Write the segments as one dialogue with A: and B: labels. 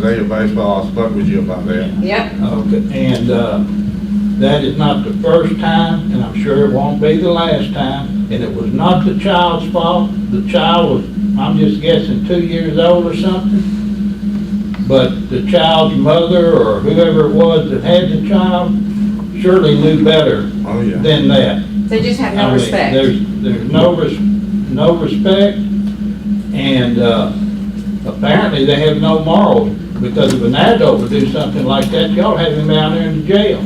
A: Zeta Baseball, I spoke with you about that.
B: Yep,
C: Okay, and, uh, that is not the first time, and I'm sure it won't be the last time, and it was not the child's fault. The child was, I'm just guessing, two years old or something. But the child's mother or whoever it was that had the child surely knew better
A: Oh, yeah.
C: than that.
B: they just have
C: I
B: no
C: mean,
B: respect.
C: There's, there's no res, no respect, and, uh, apparently they have no morals, because if an adult would do something like that, y'all have him down there in jail.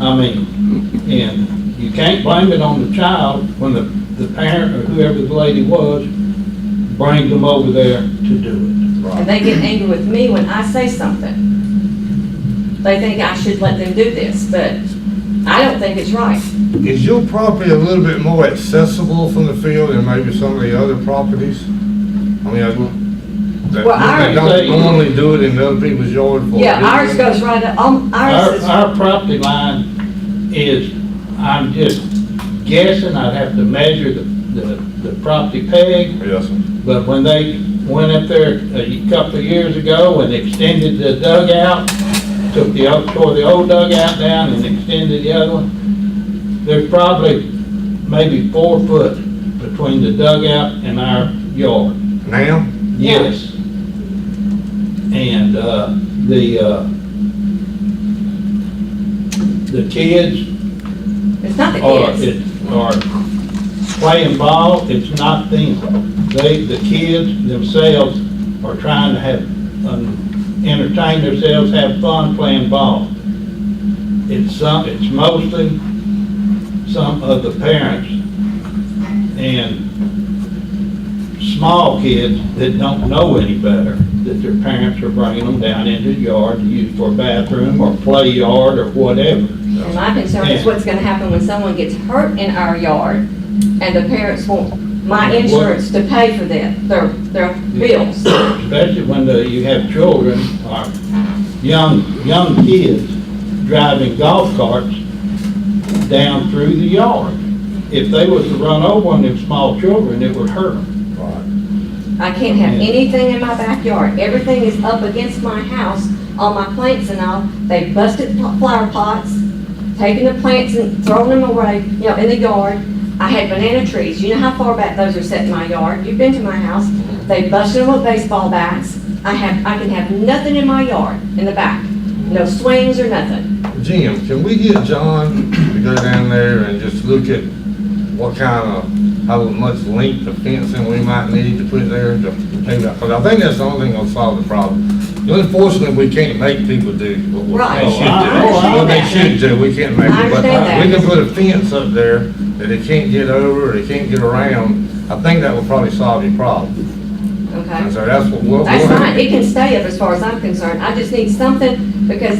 C: I mean, and you can't blame it on the child when the, the parent or whoever the lady was brings them over there to do
A: Right.
B: And they get angry with me when I say something. They think I should let them do this, but I don't think it's right.
A: Is your property a little bit more accessible from the field than maybe some of the other properties? I mean, I, that
B: Well, ours-
A: they don't normally do it in other people's yard for.
B: Yeah, ours goes right up, um,
C: it. Our,
B: ours is,
C: our property line is, I'm just guessing, I'd have to measure the, the, the property peg,
A: Yes, sir.
C: But when they went up there a couple of years ago and extended the dugout, took the, old- tore the old dugout down and extended the other one, there's probably maybe four foot between the dugout and our yard.
A: Now,
C: Yes. And, uh, the, uh, the kids
B: it's not the
C: or
B: kids.
C: oh, it, or playing ball, it's not them. They, the kids themselves are trying to have, um, entertain themselves, have fun playing ball. It's some, it's mostly some of the parents and small kids that don't know any better, that their parents are bringing them down into the yard to use for a bathroom or play yard or whatever.
B: And my concern is
C: Yeah.
B: what's gonna happen when someone gets hurt in our yard and the parents want my
C: What-
B: insurance to pay for that, their, their bills.
C: especially when the- you have children or young, young kids driving golf carts down through the yard. If they was to run over one of them small children, it would hurt them.
A: right,
B: I can't have
C: Yeah.
B: anything in my backyard. Everything is up against my house, all my plants and all. They busted pl- flower pots, taking the plants and throwing them away, you know, in the yard. I had banana trees. You know how far back those are set in my yard? You've been to my house. They busted them with baseball bats. I have, I can have nothing in my yard, in the back. No swings or nothing.
A: Jim, can we get John to go down there and just look at what kind of, how much length of fencing we might need to put there to, because I think that's the only thing that'll solve the problem. Unfortunately, we can't make people do what we-
B: Right.
A: they should
C: Oh, I-
A: do.
C: oh, I
A: What they
B: understand
A: should do, we can't make
B: I
A: it, but we
B: understand that.
A: can put a fence up there that they can't get over, or they can't get around. I think that will probably solve your problem. And
B: Okay?
A: so that's what we'll.
B: That's
A: we'll-
B: fine. It can stay up as far as I'm concerned. I just need something because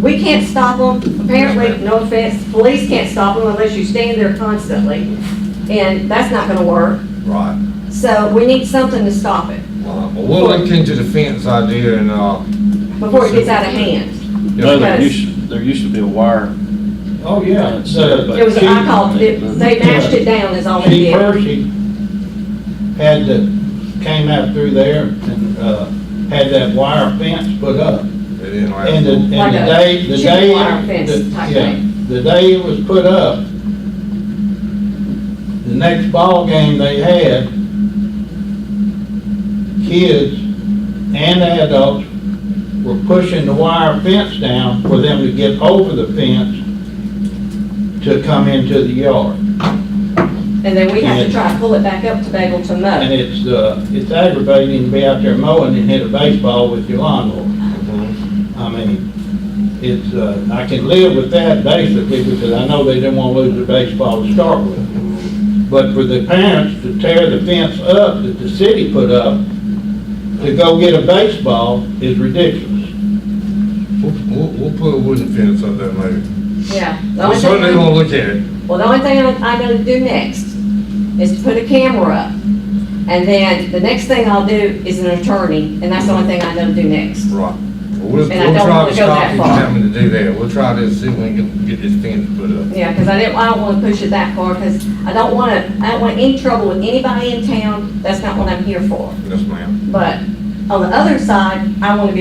B: we can't stop them.
A: Yes,
B: Apparently,
A: ma'am.
B: no offense, police can't stop them unless you stand there constantly. And that's not gonna work.
A: Right.
B: So we need something to stop it
A: Uh, but We'll look into the fence idea and, uh,
B: before it gets out of hand.
D: No, there
B: Because-
D: used, there used to be a wire.
C: Oh, yeah.
D: That's it, but-
B: It was, I called, it- they mashed it down is all they
C: She
B: did.
C: Percy had the, came out through there and, uh, had that wire fence put up.
A: it didn't last
C: And the,
A: long.
C: and the
B: Like a
C: day, the
B: chicken
C: day.
B: wire fence
C: the-
B: type
C: yeah,
B: thing.
C: The day it was put up, the next ball game they had, kids and adults were pushing the wire fence down for them to get over the fence to come into the yard.
B: And then we have to try to pull it back up to be able to
C: And
B: mow.
C: it's, uh, it's aggravating to be out there mowing and hit a baseball with your lawnmower. I mean, it's, uh, I can live with that basically because I know they didn't want to lose the baseball to start with. But for the parents to tear the fence up that the city put up to go get a baseball is ridiculous.
A: We'll, we'll, we'll put a wooden fence up there maybe.
B: Yeah. The
A: We're
B: only thing
A: certainly
B: I-
A: gonna look at it.
B: Well, the only thing I'm, I'm gonna do next is to put a camera up. And then the next thing I'll do is an attorney, and that's the only thing I'm gonna do next.
A: Right. We'll, we'll
B: And I don't
A: try
B: wanna
A: to
B: go that
A: stop you from
B: far.
A: having to do that. We'll try to see if we can get this fence put up.
B: Yeah, because I didn't, I don't wanna push it that far, because I don't wanna, I don't want any trouble with anybody in town. That's not what I'm here for.
A: Yes, ma'am.
B: But on the other side, I wanna be